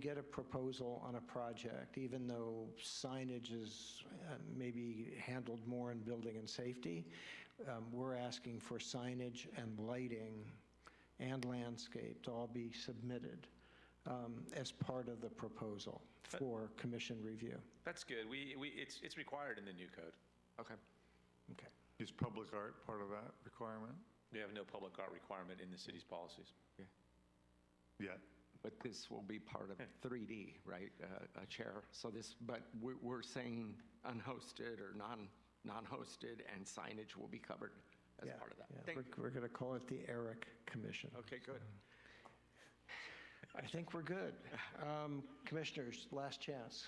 get a proposal on a project, even though signage is uh, maybe handled more in building and safety, um, we're asking for signage and lighting and landscape to all be submitted um, as part of the proposal for commission review. That's good. We, we, it's, it's required in the new code. Okay. Okay. Is public art part of that requirement? We have no public art requirement in the city's policies. Yeah. But this will be part of 3D, right? Uh, A chair. So this, but we're, we're saying unhosted or non, non-hosted and signage will be covered as Yeah, part of that. yeah. Thank- We're- We're going to call it the Eric Commission. Okay, good. I think we're good. Um, Commissioners, last chance.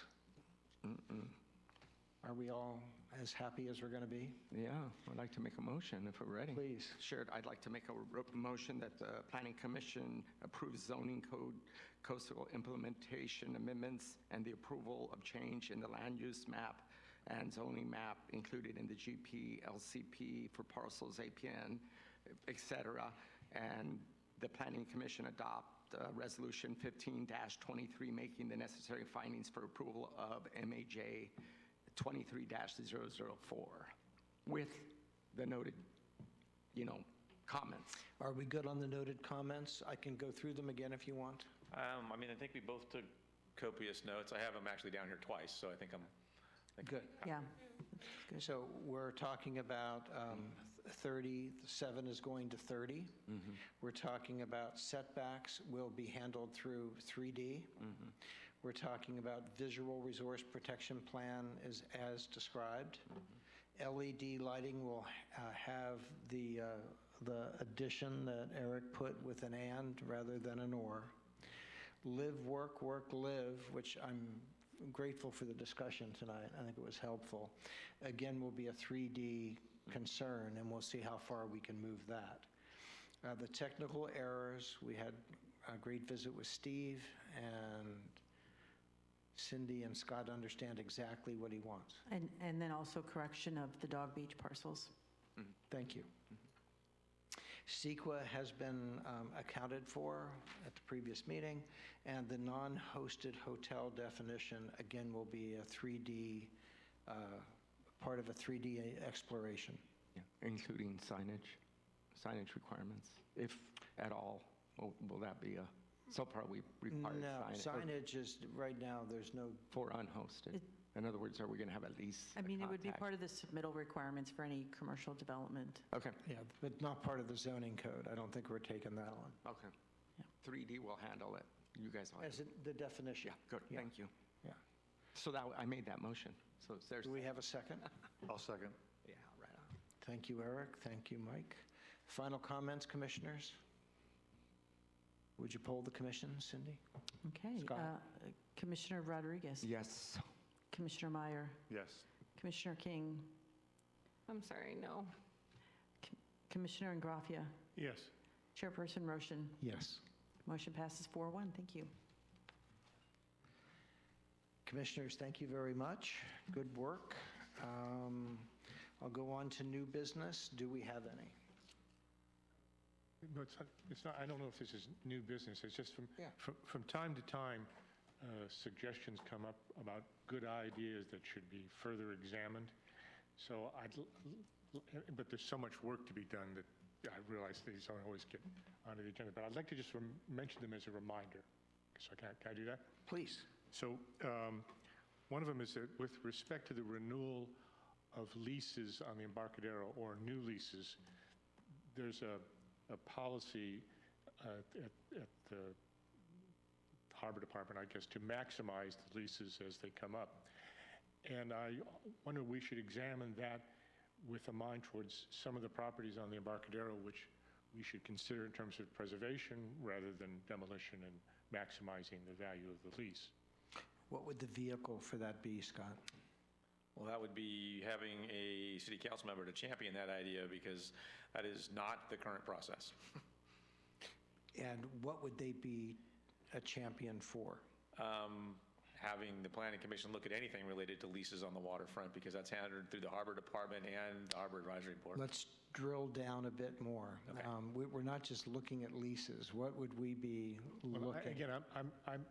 Are we all as happy as we're going to be? Yeah, I'd like to make a motion if we're ready. Please. Sure, I'd like to make a r- motion that the Planning Commission approves zoning code coastal implementation amendments and the approval of change in the land use map and zoning map included in the GP, LCP for parcels, APN, et cetera. And the Planning Commission adopt uh, Resolution 15-23, making the necessary findings for approval of MAJ 23-004 with the noted, you know, comments. Are we good on the noted comments? I can go through them again if you want. Um, I mean, I think we both took copious notes. I have them actually down here twice, so I think I'm, Good. Yeah, So we're talking about um, 30, 7 is going to 30. We're talking about setbacks will be handled through 3D. We're talking about visual resource protection plan is as described. LED lighting will uh, have the, uh, the addition that Eric put with an and rather than an or. Live, work, work, live, which I'm grateful for the discussion tonight. I think it was helpful. Again, will be a 3D concern, and we'll see how far we can move that. Uh, The technical errors, we had a great visit with Steve, and Cindy and Scott understand exactly what he wants. and, and then also correction of the Dog Beach parcels. Thank you. CEQA has been um, accounted for at the previous meeting, and the non-hosted hotel definition, again, will be a 3D, uh, part of a 3D exploration. Including signage, signage requirements, if at all. Will will that be a, so far we require No, signage signage is, right now, there's no, for unhosted. It- In other words, are we going to have at least? I mean, it would be part contact? of the submittal requirements for any commercial development. Okay, yeah, but not part of the zoning code. I don't think we're taking that on. okay. Yeah. 3D will handle it. You guys will. As handle it. in the definition. Yeah, good, Yeah, thank you. Yeah. So that, I made that motion. So is there's, Do we have a second? I'll second. yeah, right on. Thank you, Eric. Thank you, Mike. Final comments, commissioners? Would you poll the commission, Cindy? Okay. uh, Scott. Commissioner Rodriguez. Yes. Commissioner Meyer. Yes. Commissioner King. I'm sorry, no. Commissioner Ingraffia. Yes. Chairperson Roshan. Yes. Motion passes 4-1. Thank you. Commissioners, thank you very much. Good work. Um, I'll go on to new business. Do we have any? No, it's not, it's not, I don't know if this is new business, it's just from, Yeah. from, from time to time, uh, suggestions come up about good ideas that should be further examined. So I'd, l- l- but there's so much work to be done that I realize these don't always get onto the agenda. But I'd like to just rem- mention them as a reminder. So can I, can I do that? Please. So um, one of them is that with respect to the renewal of leases on the Embarcadero or new leases, there's a, a policy uh, at, at the Harbor Department, I guess, to maximize the leases as they come up. And I wonder, we should examine that with a mind towards some of the properties on the Embarcadero, which we should consider in terms of preservation rather than demolition and maximizing the value of the lease. What would the vehicle for that be, Scott? well, that would be having a city council member to champion that idea because that is not the current process. And what would they be a champion for? Um, having the planning commission look at anything related to leases on the waterfront because that's handled through the harbor department and the harbor advisory board. Let's drill down a bit more. Okay. Um, we- We're not just looking at leases. What would we be Well, I- looking? Again, I'm, I'm, I'm